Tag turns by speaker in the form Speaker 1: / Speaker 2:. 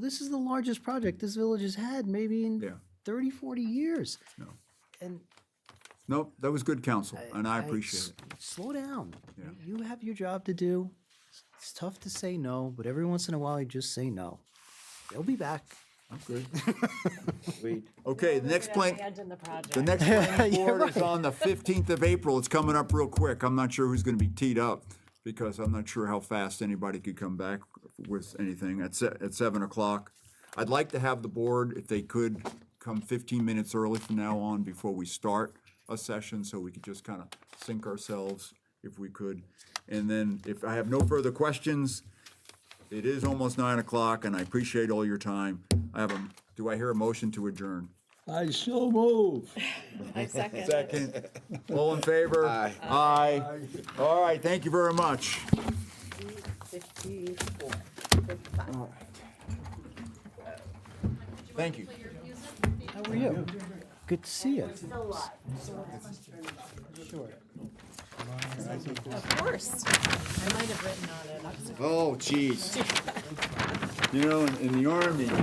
Speaker 1: This is the largest project this village has had maybe in
Speaker 2: Yeah,
Speaker 1: 30, 40 years.
Speaker 2: no.
Speaker 1: And
Speaker 2: Nope, that was good counsel, and I appreciate
Speaker 1: s-
Speaker 2: it.
Speaker 1: Slow down.
Speaker 2: Yeah.
Speaker 1: You have your job to do. It's tough to say no, but every once in a while you just say no. They'll be back.
Speaker 2: Okay, the next plan,
Speaker 3: Abandon the project.
Speaker 2: the next planning board is on the fifteenth of April. It's coming up real quick. I'm not sure who's gonna be teed up because I'm not sure how fast anybody could come back with anything at se- at seven o'clock. I'd like to have the board, if they could, come fifteen minutes early from now on before we start a session, so we could just kind of sync ourselves if we could. And then if I have no further questions, it is almost nine o'clock and I appreciate all your time. I have a, do I hear a motion to adjourn?
Speaker 4: I so move.
Speaker 3: I second.
Speaker 2: Second. All in favor? Aye. Aye. All right, thank you very much.
Speaker 3: Fifty-four.
Speaker 2: Thank you.
Speaker 1: How are you? Good to see you.
Speaker 3: Of course. I might have written on it. I'm sorry.
Speaker 2: Oh, jeez. You know, in- in the Army,